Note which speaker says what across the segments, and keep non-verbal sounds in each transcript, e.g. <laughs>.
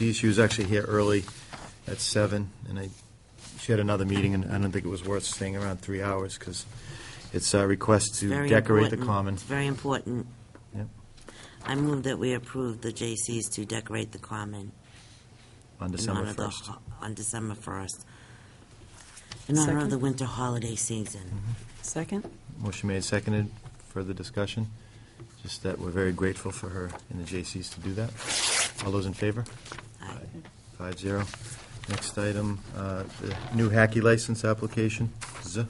Speaker 1: Dee, she was actually here early at seven, and I, she had another meeting, and I don't think it was worth staying around three hours, because it's a request to
Speaker 2: Very
Speaker 1: decorate the
Speaker 2: important.
Speaker 1: common.
Speaker 2: It's very important.
Speaker 1: Yep.
Speaker 2: I move that we approve the J.C.'s to decorate the common
Speaker 1: On
Speaker 2: in honor
Speaker 1: December
Speaker 2: of the,
Speaker 1: first.
Speaker 2: ho- on December 1st, in honor of
Speaker 3: Second.
Speaker 2: the winter holiday season.
Speaker 1: Mm-hmm.
Speaker 3: Second?
Speaker 1: Motion made, seconded, further discussion, just that we're very grateful for her and the J.C.'s to do that. All those in favor?
Speaker 2: Aye.
Speaker 1: Five zero. Next item, uh, the new hacky license application, Z,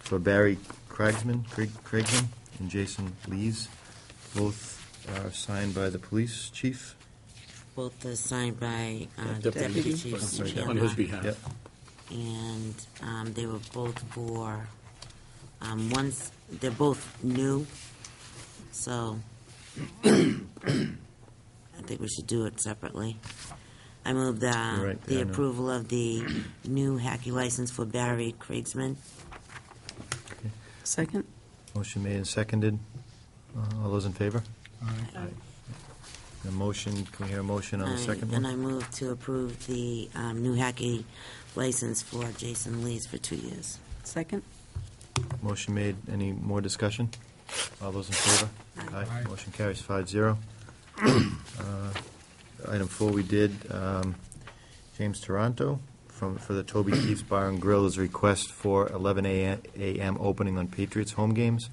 Speaker 1: for Barry Craigsman, Craig- Craigsman, and Jason Lees. Both are signed by the police chief.
Speaker 2: Both are signed by uh,
Speaker 3: Deputy.
Speaker 2: Deputy
Speaker 3: Deputy.
Speaker 2: Chief
Speaker 1: I'm sorry,
Speaker 4: on
Speaker 2: Chandler.
Speaker 4: his behalf.
Speaker 1: Yep.
Speaker 2: And um, they were both for, um, one's, they're both new, so I think we should do it separately. I move
Speaker 1: You're
Speaker 2: the,
Speaker 1: right,
Speaker 2: the
Speaker 1: yeah, I know.
Speaker 2: approval of the new hacky license for Barry Kriegsman.
Speaker 3: Second?
Speaker 1: Motion made and seconded. Uh, All those in favor?
Speaker 2: Aye.
Speaker 1: The motion, can we hear a motion on the
Speaker 2: I-
Speaker 1: second
Speaker 2: And
Speaker 1: one?
Speaker 2: I move to approve the um, new hacky license for Jason Lees for two years.
Speaker 3: Second?
Speaker 1: Motion made. Any more discussion? All those in favor?
Speaker 2: Aye.
Speaker 4: Aye.
Speaker 1: Motion carries five
Speaker 4: <coughs>
Speaker 1: zero. Uh, Item four, we did, um, James Toronto from, for the Toby Keith's Bar and Grill is request for eleven a- AM opening on Patriots home games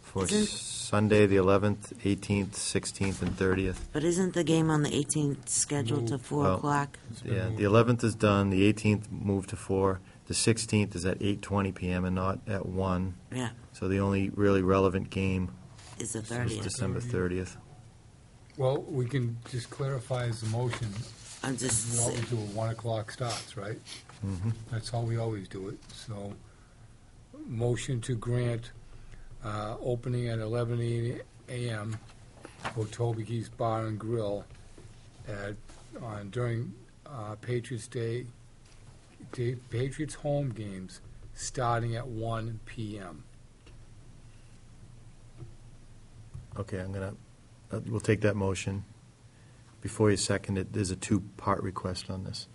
Speaker 1: for
Speaker 2: Isn't-
Speaker 1: Sunday, the eleventh, eighteenth, sixteenth, and thirtieth.
Speaker 2: But isn't the game on the 18th scheduled to 4
Speaker 1: Well-
Speaker 2: o'clock?
Speaker 4: been
Speaker 1: Yeah, the
Speaker 4: moved.
Speaker 1: eleventh is done, the eighteenth moved to four, the sixteenth is at eight twenty PM and not at one.
Speaker 2: Yeah,
Speaker 1: So the only really relevant game
Speaker 2: it's the
Speaker 1: is
Speaker 2: 30th.
Speaker 1: December thirtieth.
Speaker 4: Well, we can just clarify as a motion,
Speaker 2: I'm
Speaker 4: we
Speaker 2: just,
Speaker 4: always do a one o'clock starts, right? That's how we always do it, so, motion to grant, uh, opening at eleven AM for Toby Keith's Bar and Grill at, on, during, uh, Patriots Day, Day, Patriots home games, starting at one PM.
Speaker 1: Okay, I'm gonna, uh, we'll take that motion. Before you second it, there's a two-part request on this.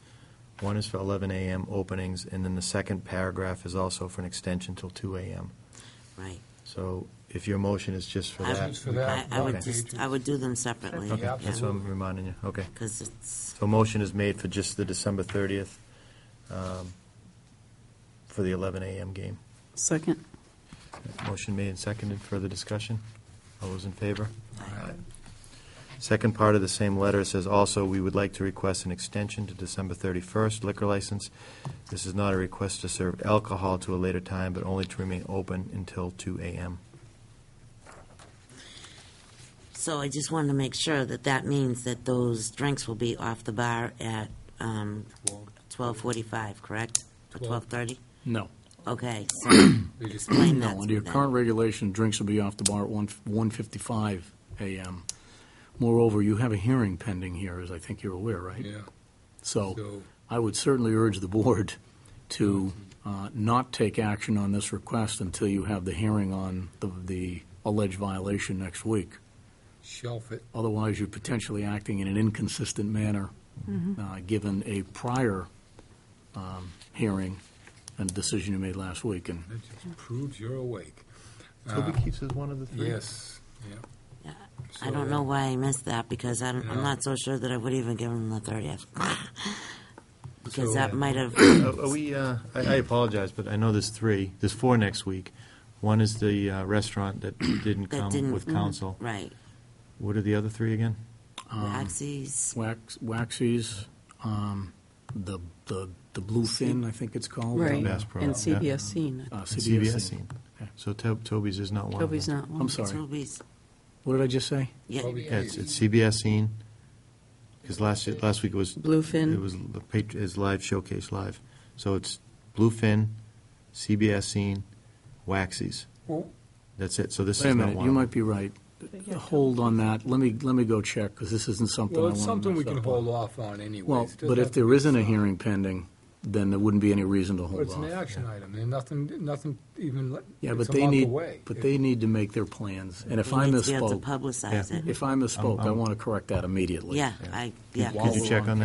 Speaker 1: One is for 11 AM openings, and then the second paragraph is also for an extension till 2 AM.
Speaker 2: right.
Speaker 1: So if your motion is just for
Speaker 2: I-
Speaker 1: that.
Speaker 4: Just for
Speaker 1: we can-
Speaker 2: I,
Speaker 4: that,
Speaker 2: I would
Speaker 1: okay.
Speaker 2: just, I would do them separately.
Speaker 1: Okay,
Speaker 4: Yeah,
Speaker 1: that's what I'm reminding you, okay.
Speaker 2: Because it's,
Speaker 1: So a motion is made for just the December 30th, um, for the 11 AM game.
Speaker 3: Second?
Speaker 1: Motion made and seconded, further discussion? All those in favor?
Speaker 4: Aye.
Speaker 1: Second part of the same letter says also, we would like to request an extension to December 31st liquor license. This is not a request to serve alcohol to a later time, but only to remain open until 2 AM.
Speaker 2: so I just wanted to make sure that that means that those drinks will be off the bar at um,
Speaker 4: Well,
Speaker 2: 12:45, correct? Or
Speaker 4: Twelve.
Speaker 2: 12:30?
Speaker 5: No.
Speaker 2: Okay, so
Speaker 4: They just
Speaker 2: explain that
Speaker 5: No,
Speaker 2: to
Speaker 5: under your
Speaker 2: them.
Speaker 5: current regulation, drinks will be off the bar at one 1:55 a.m. Moreover, you have a hearing pending here, as I think you're aware, right?
Speaker 4: Yeah,
Speaker 5: So
Speaker 4: so,
Speaker 5: I would certainly urge the board to uh, not take action on this request until you have the hearing on the- the alleged violation next week.
Speaker 4: shelf it.
Speaker 5: Otherwise, you're potentially acting in an inconsistent manner, uh, given a prior um, hearing and a decision you made last week. And
Speaker 4: That just proves you're awake.
Speaker 1: Toby Keith's is one of the three?
Speaker 4: Yes, yeah.
Speaker 2: Yeah, I
Speaker 4: So,
Speaker 2: don't know
Speaker 4: uh,
Speaker 2: why I missed that, because I'm, I'm
Speaker 4: No.
Speaker 2: not so sure that I would even give them the 30th. <laughs> Because
Speaker 4: So-
Speaker 2: that might have,
Speaker 1: Are are we, uh, I I apologize, but I know there's three, there's four next week. One is the uh, restaurant that didn't
Speaker 2: That didn't- mm, mm-hmm.
Speaker 1: come with council.
Speaker 2: right.
Speaker 1: What are the other three again?
Speaker 2: Axes,
Speaker 5: Wax, Waxies, um, the, the, the Bluefin, I think it's called. Um,
Speaker 3: Right.
Speaker 1: Mass Pro,
Speaker 3: And
Speaker 1: yeah.
Speaker 3: CBS scene.
Speaker 5: Uh,
Speaker 1: And
Speaker 5: CBS.
Speaker 1: scene.
Speaker 5: Okay.
Speaker 1: So To- Toby's is not one of them.
Speaker 3: Toby's not one.
Speaker 5: I'm sorry,
Speaker 2: Toby's,
Speaker 5: what did I just say?
Speaker 2: yeah,
Speaker 4: Toby
Speaker 1: Yeah, it's,
Speaker 4: Keith.
Speaker 1: it's CBS scene, because last, year- last week it was.
Speaker 3: Bluefin.
Speaker 1: It was the patr- is live showcase live. So it's Bluefin, CBS scene, Waxies.
Speaker 4: Well,
Speaker 1: That's it. So this is
Speaker 5: Wait a
Speaker 1: not one.
Speaker 5: minute, you
Speaker 1: of
Speaker 5: might
Speaker 1: them.
Speaker 5: be right. Hold on that, let me, let me go check, because this isn't something I
Speaker 4: Well,
Speaker 5: want to
Speaker 4: it's
Speaker 5: mess
Speaker 4: something we
Speaker 5: up
Speaker 4: can
Speaker 5: on.
Speaker 4: hold off on anyways.
Speaker 5: Well,
Speaker 4: It doesn't
Speaker 5: but
Speaker 4: have
Speaker 5: if
Speaker 4: to
Speaker 5: there
Speaker 4: be
Speaker 5: isn't a
Speaker 4: solved.
Speaker 5: hearing pending, then there wouldn't be any reason to
Speaker 4: Well,
Speaker 5: hold
Speaker 4: It's an
Speaker 5: off.
Speaker 4: action item, and nothing, nothing even, like-
Speaker 5: Yeah, but
Speaker 4: it's a
Speaker 5: they
Speaker 4: month
Speaker 5: need,
Speaker 4: away.
Speaker 5: but
Speaker 4: If-
Speaker 5: they need to make their plans, and if
Speaker 2: we
Speaker 5: I
Speaker 2: need to be able to
Speaker 5: misspoke,
Speaker 2: publicize it.
Speaker 5: if I misspoke, I
Speaker 1: I'm-
Speaker 5: want to correct that immediately.
Speaker 2: Yeah, I, yeah.
Speaker 5: Could
Speaker 1: Could you check on that?